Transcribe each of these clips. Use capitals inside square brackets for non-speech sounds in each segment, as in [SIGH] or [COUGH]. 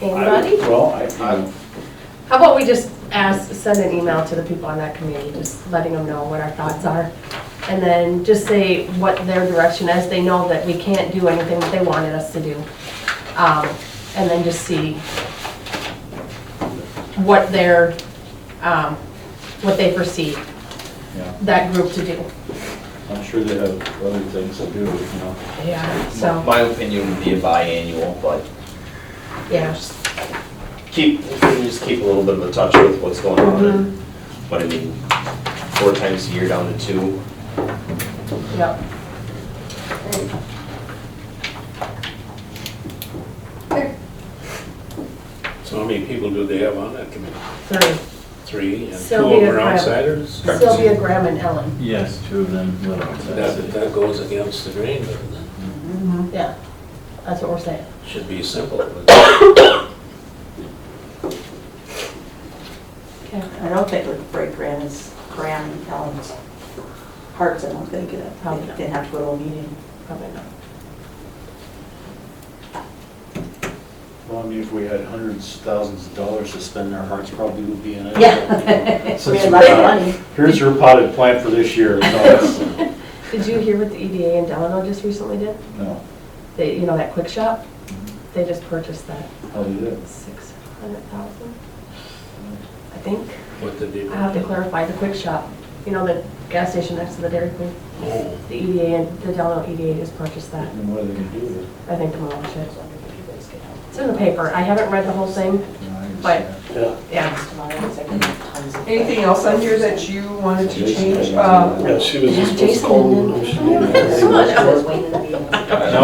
Anybody? Well, I, you know, How about we just ask, send an email to the people on that committee, just letting them know what our thoughts are? And then just say what their direction is, they know that we can't do anything that they wanted us to do. Um, And then just see what their, um, what they perceive yeah, that group to do. I'm sure they have other things to do, you know. Yeah. My So, my opinion would be a biannual, but yeah, just keep, we can just keep a little bit of a touch with what's going on. and- Mm-hmm. But I mean, four times a year down to two, yep. So how many people do they have on that committee? Three. Three, and two of Sylvia them are Graham. outsiders? Sylvia, Graham, and Ellen. Yes, two of them live That, outside. that goes against the grain, but it Yeah, that's what we're saying. should be simple. but- Okay. I don't think it would break Brandon's, Graham and Ellen's hearts, I don't think, uh, Probably not. they'd have to go to a meeting. Probably not. Well, I mean, if we had hundreds, thousands of dollars to spend, our hearts probably would be in it. [LAUGHS] [LAUGHS] Yeah. Since We had lots we're of not- money. Here's your potted plant for this year, no, it's- Did you hear what the E EDA in Delano just recently did? no, They, you know, that quick shop, they just purchased that how do you do? six hundred thousand, I think. What did they? I have to clarify, the quick shop, you know, the gas station next to the Dairy Queen, Oh, the EDA, and the Delano EDA just purchased that. And what are they gonna do with it? I think demolish it. It's in the paper. I haven't read the whole thing, You know, I But- understand. yeah. yeah. Anything else on here that you wanted to change? Uh, Yeah, she was Jason didn't. Come on.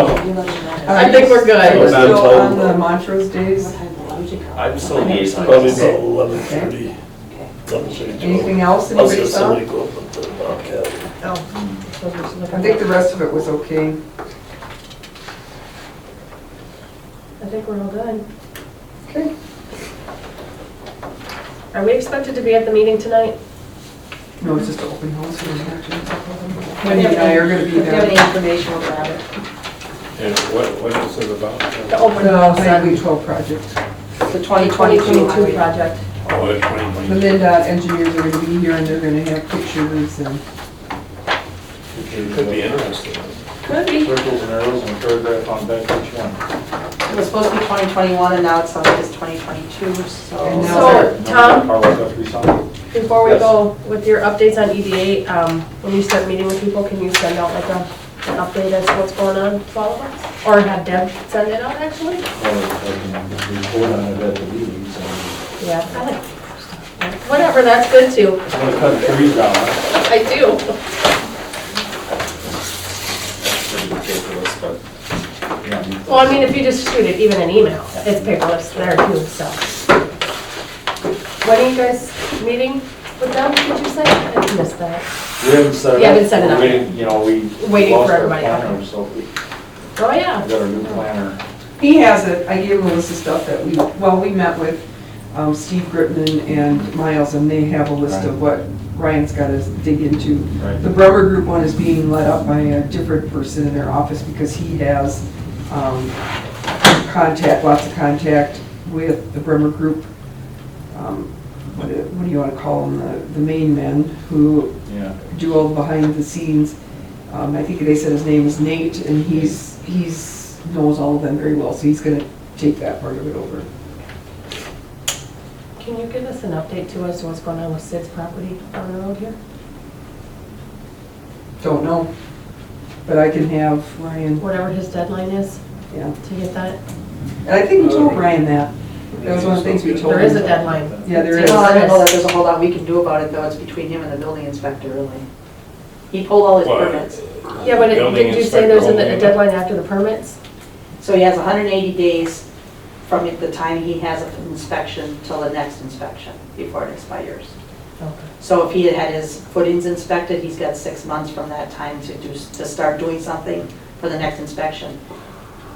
uh, I think we're good. We're still on the Montrose days. I'm still liaison. Probably about eleven thirty. Anything else anybody saw? Somebody go up with the Bobcat. No. I think the rest of it was okay. I think we're all good. Okay. Are we expected to be at the meeting tonight? No, it's just an open house. we don't have to- Wendy and I are gonna be Do you have there. any information about it? And what, what is it about? Oh, The open The house Highway 12 project. The The 2022 2022 highway. project. Oh, it's twenty The twenty. MinDOT engineers are gonna be here and they're gonna have pictures and. It could be interesting. Could be. Circles and arrows and a paragraph on back each one. It was supposed to be 2021 and now it's on it's 2022, And so. now- So, Tom, Are we up to be something? before we Yes. go with your updates on EDA, um, when you start meeting with people, can you send out like a, an update as to what's going on with all of us? Or have Deb send it out actually? Or I can report on it at the meetings, and Yeah, I like. Whatever, that's good too. I'm gonna cut trees down. I do. Pretty ridiculous, but Well, I mean, if you just shoot it, even an email, it's paperless there too, so. When are you guys meeting with them, did you say? I missed that. We haven't set it up. You haven't set it up. We're waiting, You know, we. Waiting for lost our everybody, okay. planner, So we Oh, yeah. got our new planner. He has it, I gave Melissa stuff that we, well, we met with um, Steve Gritman and Miles, and they have a list of what Ryan's got to dig into. Right. The Bremer Group one is being led up by a different person in their office because he has um, contact, lots of contact with the Bremer Group. um, What do- what do you want to call them, the- the main men who Yeah. do all the behind the scenes. Um, I think they said his name is Nate, and he's, he's, knows all of them very well, so he's gonna take that part of it over. Can you give us an update to us, what's going on with Sid's property on the road here? Don't know, but I can have Ryan, Whatever his deadline is yeah. to get that. And I think we told Ryan that. That was one of the things we told Uh, There him. is a deadline. Yeah, there is. Well, I don't know that there's a whole lot we can do about it though, it's between him and the building inspector, really. He pulled all his Well, permits. Yeah, but it- building didn't you say inspector there's a only, a but- deadline after the permits? So he has 180 days from the time he has an inspection till the next inspection before it expires. Okay. So if he had had his footings inspected, he's got six months from that time to do, to start doing something for the next inspection.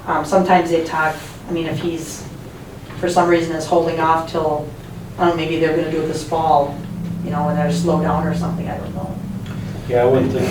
Um, Sometimes they talk, I mean, if he's, for some reason is holding off till, I don't know, maybe they're gonna do it this fall, you know, when they're slow down or something, I don't know. Yeah, I wouldn't think